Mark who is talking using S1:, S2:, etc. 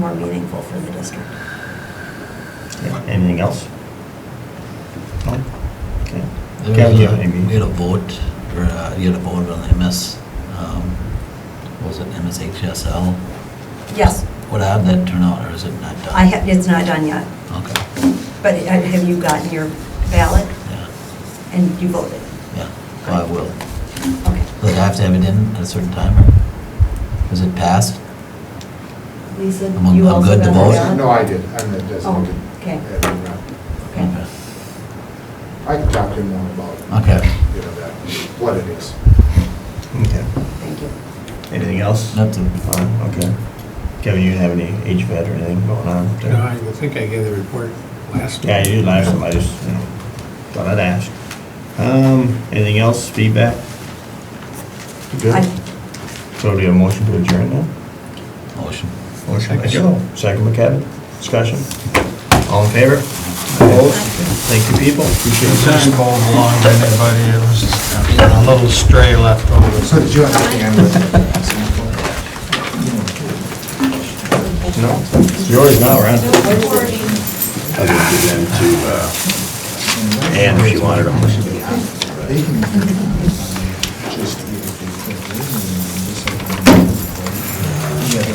S1: more meaningful for the district.
S2: Anything else? No? Okay.
S3: There
S2: Cal,
S3: was
S2: do you
S3: a-
S2: have anything?
S3: We had a vote, or uh, you had a vote on the MS, um, what was it MSHSL?
S1: Yes,
S3: What had that turn out, or is it not done?
S1: I have, it's not done yet,
S3: Okay,
S1: but uh, have you gotten your ballot
S3: yeah,
S1: and you voted?
S3: yeah, well, I will.
S1: Okay.
S3: Do they have to have it in at a certain time, or was it passed?
S1: Lisa,
S3: I'm on-
S1: you
S3: I'm
S1: also
S3: good
S1: got
S3: to
S1: the
S3: vote?
S1: ballot?
S4: No, I did, I'm the designated.
S1: Oh, okay.
S4: admin rep.
S1: Okay.
S4: I can talk to him more about,
S3: Okay,
S4: you know, that, what it is.
S2: Okay.
S1: Thank you.
S2: Anything else?
S3: nothing.
S2: Fine, okay. Kevin, you have any HVAC or anything going on up there?
S5: No, I think I gave the report last.
S2: Yeah, you did last time, I just, you know, thought I'd ask. Um, anything else, feedback? You Good?
S1: I-
S2: So do we have a motion to adjourn now?
S3: Motion.
S2: Motion by
S5: Second.
S2: Joe, second by Kevin, discussion. All in favor? Opposed? Thank you, people, appreciate
S5: It
S2: it.
S5: doesn't go along to anybody, it was a little stray left over.
S4: So did you understand what?
S2: No, it's yours now, right? And if you wanted a motion.
S4: They can just